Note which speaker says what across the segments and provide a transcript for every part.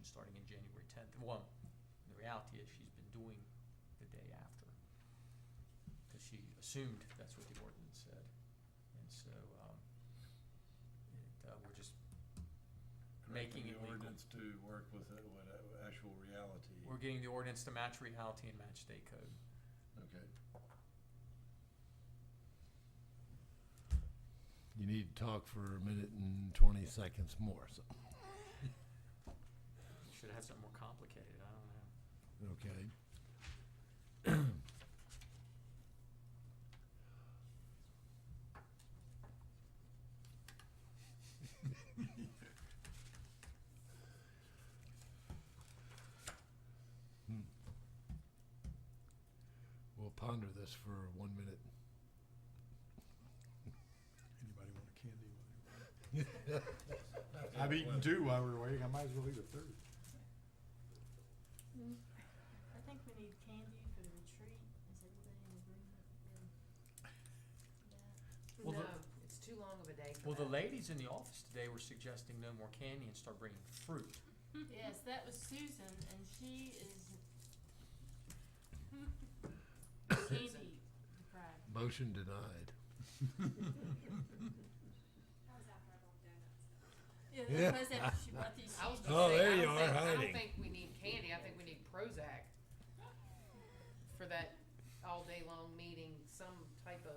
Speaker 1: happening January tenth. Well, the reality is she's been doing the day after. Because she assumed that's what the ordinance said. And so, um, it, uh, we're just making
Speaker 2: the
Speaker 1: it legal.
Speaker 2: ordinance to work with, uh, what, uh, actual reality.
Speaker 1: We're getting the ordinance to match reality and match state code.
Speaker 2: Okay.
Speaker 3: You need to talk for a minute and twenty seconds more, so,
Speaker 1: Should have had something more complicated, I don't know.
Speaker 3: okay? Hmm. Hmm. We'll ponder this for one minute.
Speaker 4: Anybody want a candy? I've eaten
Speaker 2: Well,
Speaker 4: two while we were waiting, I might as well eat a third.
Speaker 5: I think we need candy for the retreat. Is everybody in agreement with that?
Speaker 1: Well, the-
Speaker 6: No, it's too long of a day for
Speaker 1: Well, the
Speaker 6: that.
Speaker 1: ladies in the office today were suggesting no more candy and start bringing fruit.
Speaker 5: Yes, that was Susan, and she is candy deprived.
Speaker 3: Motion denied.
Speaker 7: That was after I walked in. That's
Speaker 5: Yeah,
Speaker 3: Yeah.
Speaker 5: that was after she bought these
Speaker 6: I was
Speaker 5: sheets.
Speaker 6: gonna
Speaker 3: Oh,
Speaker 6: say,
Speaker 3: there
Speaker 6: I
Speaker 3: you
Speaker 6: don't
Speaker 3: are,
Speaker 6: think- I
Speaker 3: hiding.
Speaker 6: don't think we need candy, I think we need Prozac for that all day long meeting, some type of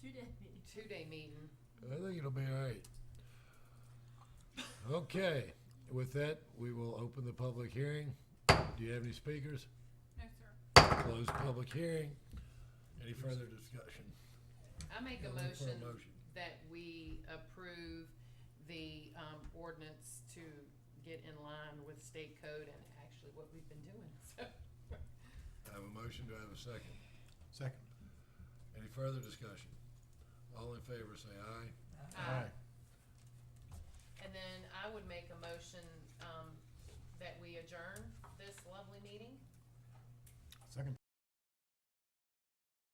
Speaker 5: Two days.
Speaker 6: two-day meeting.
Speaker 3: I think it'll be all right. Okay, with that, we will open the public hearing. Do you have any speakers?
Speaker 7: No, sir.
Speaker 3: Close public hearing. Any further discussion?
Speaker 6: I make a
Speaker 3: Yeah, look for
Speaker 6: motion that we approve the, um, ordinance to get in line with state code and actually what we've been doing, so.
Speaker 3: I have a motion, do I have a second?
Speaker 4: Second.
Speaker 3: Any further discussion? All in favor, say aye.
Speaker 6: And then I would make a motion, um,